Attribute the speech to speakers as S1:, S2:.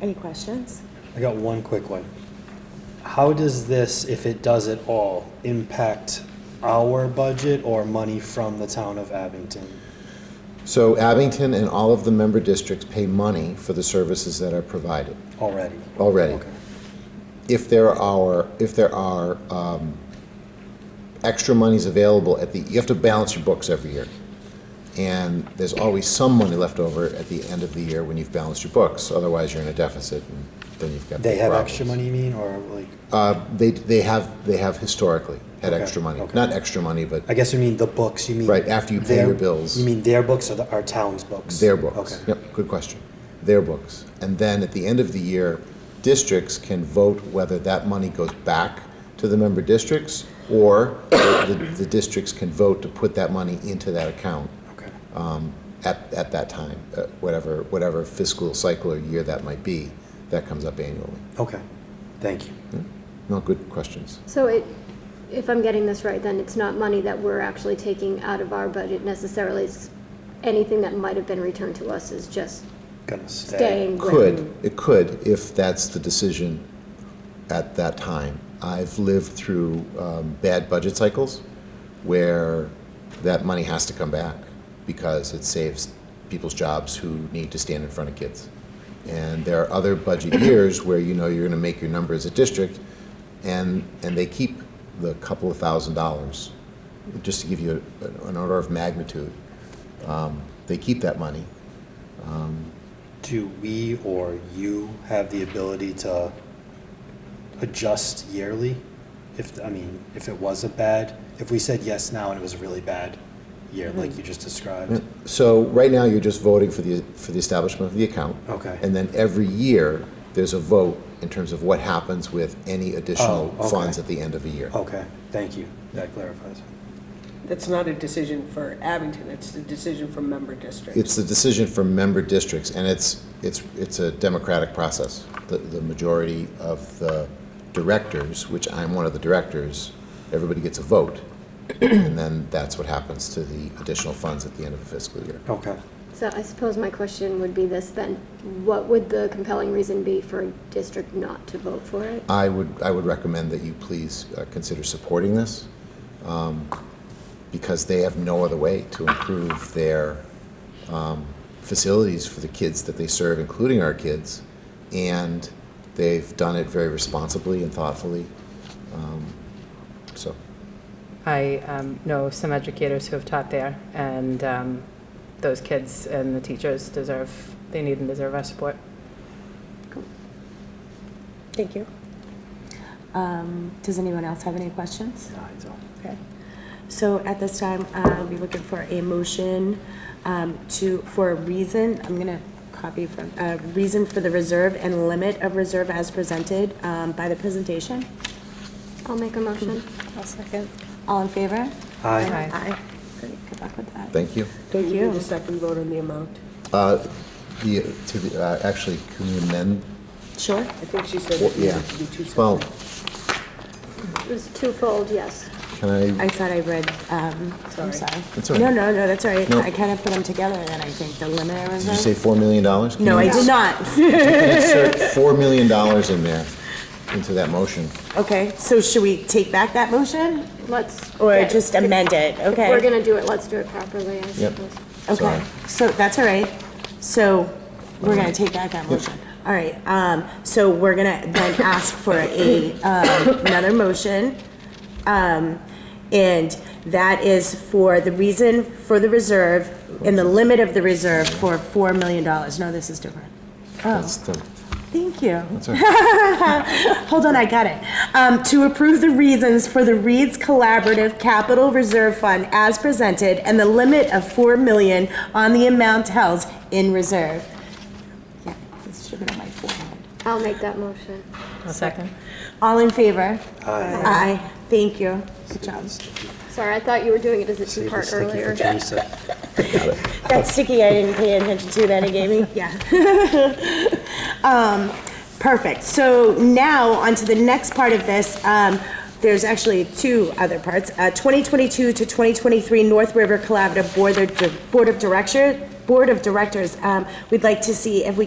S1: Any questions?
S2: I got one quick one. How does this, if it does at all, impact our budget or money from the town of Abington?
S3: So Abington and all of the member districts pay money for the services that are provided
S2: Already.
S3: already.
S2: Okay.
S3: If there are, if there are um, extra monies available at the, you have to balance your books every year. And there's always some money left over at the end of the year when you've balanced your books, otherwise you're in a deficit and then you've got.
S2: They have
S3: problems.
S2: extra money, you mean, or like,
S3: Uh, They, they have, they have historically had
S2: Okay,
S3: extra money.
S2: okay.
S3: Not extra money, but
S2: I guess you mean the books, you mean?
S3: Right, after you pay
S2: their-
S3: your bills.
S2: You mean their books or the- our town's books?
S3: Their books.
S2: Okay.
S3: Yep, good question. Their books. And then at the end of the year, districts can vote whether that money goes back to the member districts or the, the districts can vote to put that money into that account
S2: Okay.
S3: at, at that time, uh, whatever, whatever fiscal cycle or year that might be, that comes up annually.
S2: Okay, thank you.
S3: No, good questions.
S4: So it, if I'm getting this right, then it's not money that we're actually taking out of our budget necessarily. It's anything that might have been returned to us is just
S2: Gonna stay.
S4: staying with.
S3: Could, it could, if that's the decision at that time. I've lived through um, bad budget cycles where that money has to come back because it saves people's jobs who need to stand in front of kids. And there are other budget years where you know you're going to make your number as a district, and and they keep the couple of thousand dollars, just to give you an order of magnitude. Um, they keep that money.
S2: Do we or you have the ability to adjust yearly? If, I mean, if it was a bad, if we said yes now and it was a really bad year, like you just
S3: Mm.
S2: described?
S3: So right now, you're just voting for the, for the establishment of the account.
S2: Okay.
S3: And then every year, there's a vote in terms of what happens with any additional
S2: Oh, okay.
S3: funds at the end of a year.
S2: Okay, thank you. That clarifies.
S5: That's not a decision for Abington, it's a decision for member districts.
S3: It's the decision for member districts, and it's, it's, it's a democratic process. The, the majority of the directors, which I'm one of the directors, everybody gets a vote. And then that's what happens to the additional funds at the end of the fiscal year.
S2: Okay.
S4: So I suppose my question would be this then, what would the compelling reason be for a district not to vote for it?
S3: I would, I would recommend that you please uh, consider supporting this, um, because they have no other way to improve their um, facilities for the kids that they serve, including our kids, and they've done it very responsibly and thoughtfully. Um, So,
S6: I um, know some educators who have taught there, and um, those kids and the teachers deserve, they need and deserve our support.
S1: Thank you. Um, Does anyone else have any questions?
S2: No, I don't.
S1: Okay. So at this time, I'll be looking for a motion um, to, for a reason, I'm going to copy from, uh, reason for the reserve and limit of reserve as presented um, by the presentation.
S4: I'll make a motion.
S1: I'll second. All in favor?
S2: Aye.
S6: Aye.
S1: Aye. Great, good luck with that.
S3: thank you.
S5: Don't you
S1: you.
S5: need a second vote on the amount?
S3: Uh, The, to the, uh, actually, can we amend?
S1: Sure.
S5: I think she said
S3: Well,
S5: it
S3: Yeah.
S5: needed to be two separate.
S3: Well,
S4: It was twofold, yes.
S3: can I,
S1: I thought I read, um, I'm
S5: Sorry.
S1: sorry.
S3: That's all right.
S1: No, no, no, that's all right.
S3: No.
S1: I kind of put them together then, I think, the limit of
S3: did you
S1: reserve.
S3: say $4 million? Can
S1: No,
S3: you
S1: I did not.
S3: Insert $4 million in there, into that motion.
S1: Okay, so should we take back that motion
S4: Let's.
S1: or
S4: yeah,
S1: just amend it?
S4: If we're
S1: Okay.
S4: gonna do it, let's do it properly, I
S3: Yep.
S4: suppose.
S1: Okay, Oh.
S3: Sorry.
S1: so that's all right. So we're gonna take back that motion. All right, um, so we're gonna then ask for a, um, another motion. Um, and that is for the reason for the reserve and the limit of the reserve for four million dollars. No, this is different.
S3: That's the,
S1: Thank you.
S3: that's our,
S1: Hold on, I got it. Um, to approve the reasons for the Reed's Collaborative Capital Reserve Fund as presented and the limit of four million on the amount held in reserve. Yeah, this should have been on my forehead.
S4: I'll make that motion.
S6: A second?
S1: All in favor? Aye. Aye, thank you. Good job.
S4: Sorry, I thought you were doing it as a
S2: Save the
S4: two-part
S2: sticky for
S4: earlier.
S2: Teresa.
S1: That's sticky, I didn't pay attention to that, it gave me, yeah. Um, Perfect, so now on to the next part of this. Um, There's actually two other parts. Uh, 2022 to 2023 North River Collaborative Board of Dir- Board of Director, Board of Directors. Um, We'd like to see if we